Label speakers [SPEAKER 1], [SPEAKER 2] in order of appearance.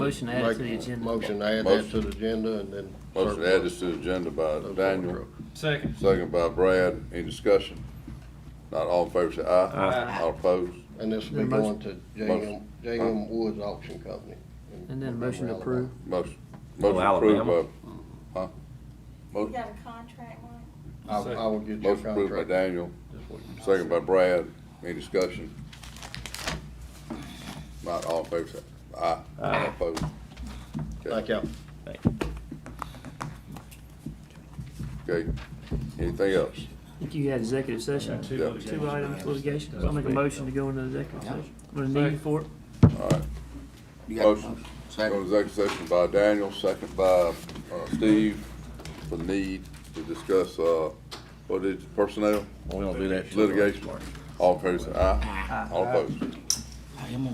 [SPEAKER 1] Motion to add to the agenda.
[SPEAKER 2] Motion to add that to
[SPEAKER 3] Motion.
[SPEAKER 2] the agenda and then.
[SPEAKER 3] Motion to add this to the agenda by
[SPEAKER 2] surplus those water
[SPEAKER 3] Daniel,
[SPEAKER 2] trucks.
[SPEAKER 4] Second.
[SPEAKER 3] second by Brad. Any discussion? Not all in favor, say aye.
[SPEAKER 4] Aye.
[SPEAKER 3] All opposed?
[SPEAKER 2] And this will be
[SPEAKER 1] Then motion-
[SPEAKER 2] going to J.M.,
[SPEAKER 3] Motion.
[SPEAKER 2] J.M. Woods Auction Company.
[SPEAKER 1] And then motion to approve.
[SPEAKER 3] Motion,
[SPEAKER 5] Oh,
[SPEAKER 3] motion approved
[SPEAKER 5] Alabama.
[SPEAKER 3] by, huh?
[SPEAKER 6] You
[SPEAKER 3] Motion
[SPEAKER 6] got a contract, Mike?
[SPEAKER 2] I, I will get your
[SPEAKER 3] motion approved by
[SPEAKER 2] contract.
[SPEAKER 3] Daniel, second by Brad. Any discussion? Not all in favor, say aye. All opposed?
[SPEAKER 2] Thank y'all.
[SPEAKER 3] Okay. Anything else?
[SPEAKER 1] I think you had executive session,
[SPEAKER 4] Two
[SPEAKER 3] Yeah.
[SPEAKER 1] two
[SPEAKER 4] litigations.
[SPEAKER 1] items litigation. So I'll make a motion to go into executive session. What a need for it.
[SPEAKER 3] All right. Motion, second executive session by Daniel, second by, uh, Steve, for the need to discuss, uh, what is it, personnel?
[SPEAKER 5] We don't do that.
[SPEAKER 3] Litigation. All in favor, say aye. All opposed?